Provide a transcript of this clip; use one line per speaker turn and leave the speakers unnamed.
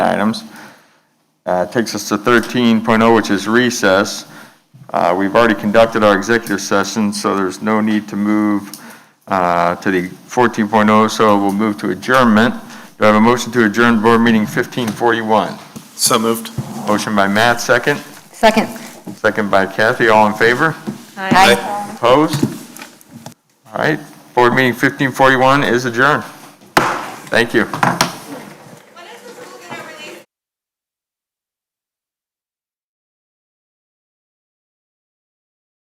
items. Uh, Takes us to 13.0, which is recess. Uh, We've already conducted our executive session, so there's no need to move uh, to the 14.0, so we'll move to adjournment. Do I have a motion to adjourn board meeting 1541?
So moved.
Motion by Matt, second.
Second.
Second by Kathy, all in favor? Opposed? All right, board meeting 1541 is adjourned. Thank you.